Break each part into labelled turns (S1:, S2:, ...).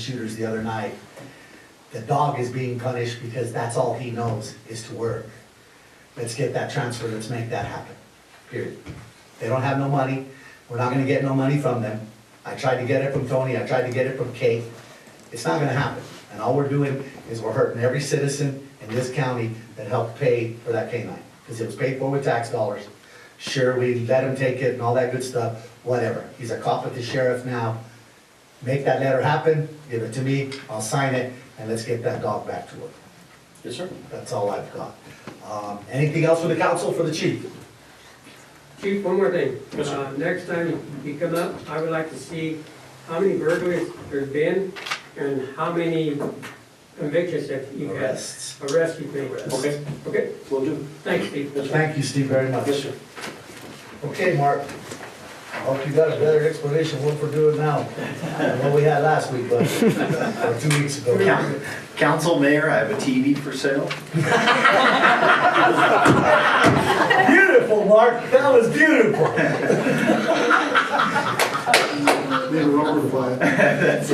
S1: shooters the other night. The dog is being punished because that's all he knows is to work. Let's get that transfer, let's make that happen, period. They don't have no money, we're not gonna get no money from them. I tried to get it from Tony, I tried to get it from Kate. It's not gonna happen. And all we're doing is we're hurting every citizen in this county that helped pay for that canine. Because it was paid for with tax dollars. Sure, we let him take it and all that good stuff, whatever. He's a cop with the sheriff now make that letter happen, give it to me, I'll sign it, and let's get that dog back to work.
S2: Yes, sir.
S1: That's all I've got. Um, Anything else for the council, for the chief?
S3: Chief, one more thing.
S2: Yes, sir.
S3: Uh, Next time you come up, I would like to see how many burglaries there's been and how many convictions that you've had,
S1: Arrests.
S3: arrests you've made.
S2: Okay,
S3: Okay,
S2: will do.
S3: thanks, Chief.
S2: Yes, sir.
S1: Thank you, Steve, very much.
S2: Yes, sir.
S1: Okay, Mark, I hope you got a better explanation of what we're doing now than what we had last week, but, uh, or two weeks ago.
S4: Coun- Council, Mayor, I have a TV for sale.
S1: Beautiful, Mark, that was beautiful.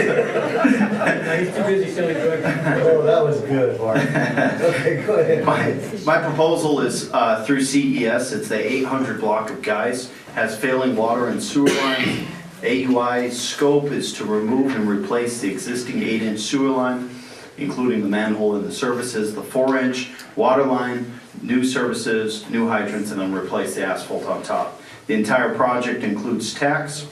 S3: Now, he's too busy selling drugs.
S1: Oh, that was good, Mark. Okay, go ahead.
S4: My, my proposal is uh, through CES, it's the 800 block of Guys, has failing water and sewer line. AUI's scope is to remove and replace the existing 8-inch sewer line, including the manhole and the services, the 4-inch water line, new services, new hydrants, and then replace the asphalt on top. The entire project includes tax,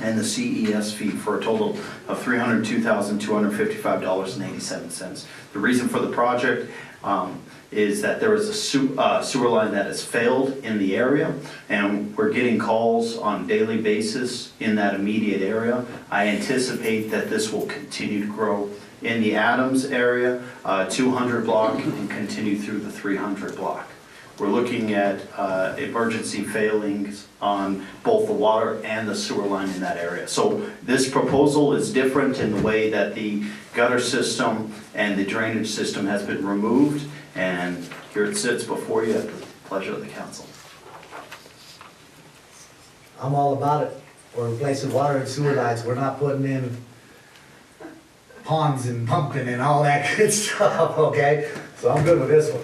S4: and the CES fee for a total of $302,255.87. The reason for the project um, is that there is a su- uh, sewer line that has failed in the area, and we're getting calls on a daily basis in that immediate area. I anticipate that this will continue to grow in the Adams area, uh, 200 block, and continue through the 300 block. We're looking at uh, emergency failings on both the water and the sewer line in that area. So this proposal is different in the way that the gutter system and the drainage system has been removed, and here it sits before you at the pleasure of the council.
S1: I'm all about it. We're replacing water and sewer lines, we're not putting in ponds and pumping and all that good stuff, okay? So I'm good with this one.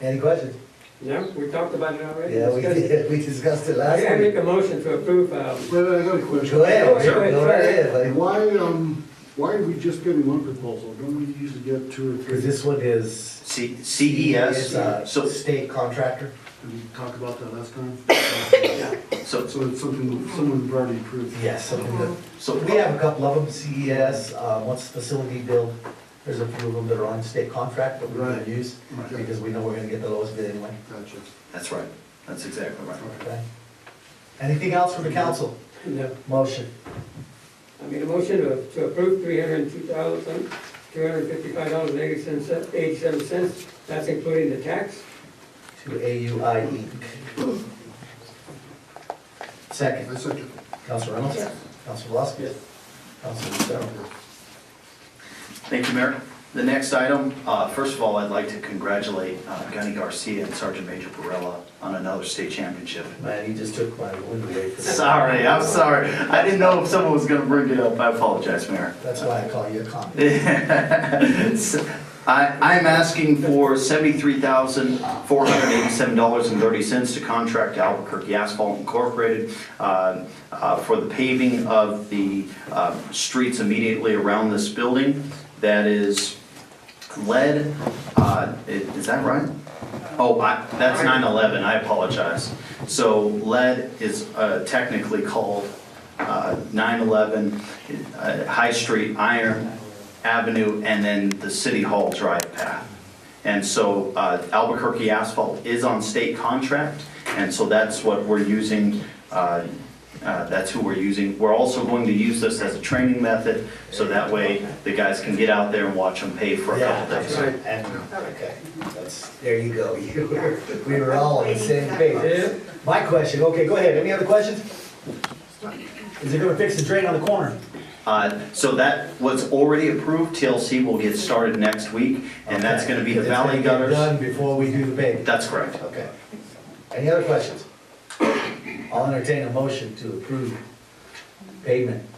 S1: Any questions?
S3: No, we talked about it already.
S1: Yeah, we
S3: Discussed it.
S1: did, we discussed it last
S3: Okay, I make
S1: week.
S3: a motion to approve, um,
S5: Wait, wait, I got a question.
S1: Go ahead,
S3: Go ahead,
S1: sure, go
S3: sorry.
S1: right ahead, buddy.
S5: Why, um, why are we just getting one proposal? Don't we usually get two or
S1: Because
S5: three?
S1: this one is.
S4: C-
S1: It's
S4: CES,
S1: a
S4: so,
S1: state contractor.
S5: Did we talk about that last time?
S4: so,
S5: So it's something, someone's already approved.
S1: Yes, something that-
S4: so
S1: We have a couple of them, CES, uh, once facility build, there's a few of them that are on state contract that we're gonna
S5: Right.
S1: use
S5: Okay.
S1: because we know we're gonna get the lowest bid anyway.
S5: Gotcha.
S4: that's right, that's exactly right.
S1: Okay. Anything else from the council?
S3: no,
S1: Motion.
S3: I made a motion to to approve three hundred and two thousand, two hundred and fifty-five dollars and eighty-seven cents. That's including the tax.
S1: To AUI Inc.
S5: I
S1: Second,
S5: second.
S1: Council Reynolds?
S3: Yes.
S1: Council Voskis?
S3: Yes.
S1: Council Lucero?
S4: Thank you, Mayor. The next item, uh, first of all, I'd like to congratulate uh, Gunny Garcia and Sergeant Major Barella on another state championship.
S1: Man, you just took my wind away from me.
S4: Sorry, I'm sorry. I didn't know if someone was gonna bring it up. I apologize, Mayor.
S1: That's why I call you a commie.
S4: It's- I, I'm asking for seventy-three thousand, four hundred eighty-seven dollars and thirty cents to contract to Albuquerque Asphalt Incorporated uh, uh, for the paving of the uh, streets immediately around this building. That is lead, uh, i- is that right? Oh, I, that's nine eleven, I apologize. So lead is, uh, technically called, uh, nine eleven, uh, High Street, Iron Avenue, and then the City Hall Drive path. And so, uh, Albuquerque asphalt is on state contract, and so that's what we're using, uh, uh, that's who we're using. We're also going to use this as a training method, so that way the guys can get out there and watch them pay for a
S1: Yeah,
S4: couple
S1: that's
S4: days.
S1: right. And, okay, that's, there you go. You were- We were all on the same page.
S3: Yeah.
S1: My question, okay, go ahead. Any other questions? Is it gonna fix the drain on the corner?
S4: Uh, So that, what's already approved, TLC will get started next week, and that's gonna be the
S1: Okay. It's
S4: valley
S1: gonna get
S4: gutters.
S1: Done before we do the paving.
S4: That's correct.
S1: Okay. Any other questions? I'll entertain a motion to approve payment